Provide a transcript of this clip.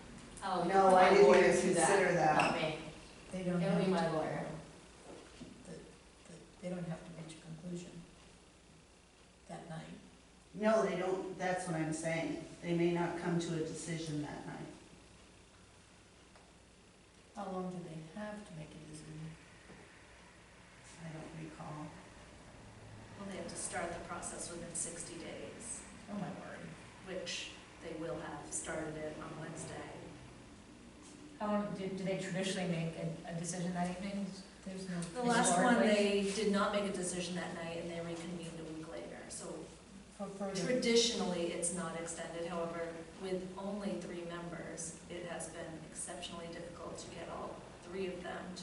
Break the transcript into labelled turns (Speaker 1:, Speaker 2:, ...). Speaker 1: Oh, you
Speaker 2: No,
Speaker 1: put
Speaker 2: I
Speaker 1: my
Speaker 2: didn't
Speaker 1: lawyer
Speaker 2: even
Speaker 1: through that,
Speaker 2: consider that.
Speaker 1: Not me.
Speaker 3: They don't
Speaker 1: It'll
Speaker 3: have
Speaker 1: be
Speaker 3: to.
Speaker 1: my lawyer.
Speaker 3: that- that They don't have to reach a conclusion that night.
Speaker 2: No, they don't, that's what I'm saying. They may not come to a decision that night.
Speaker 3: How long do they have to make a decision?
Speaker 2: I don't recall.
Speaker 4: Well, they have to start the process within 60 days,
Speaker 3: Oh, my word.
Speaker 4: which they will have started it on Wednesday.
Speaker 3: How long, do, do they traditionally make a, a decision that evening? There's no.
Speaker 4: The last one,
Speaker 3: historically,
Speaker 4: they did not make a decision that night and they reconvened a week later. So
Speaker 3: For further,
Speaker 4: traditionally, it's not extended. However, with only three members, it has been exceptionally difficult to get all three of them to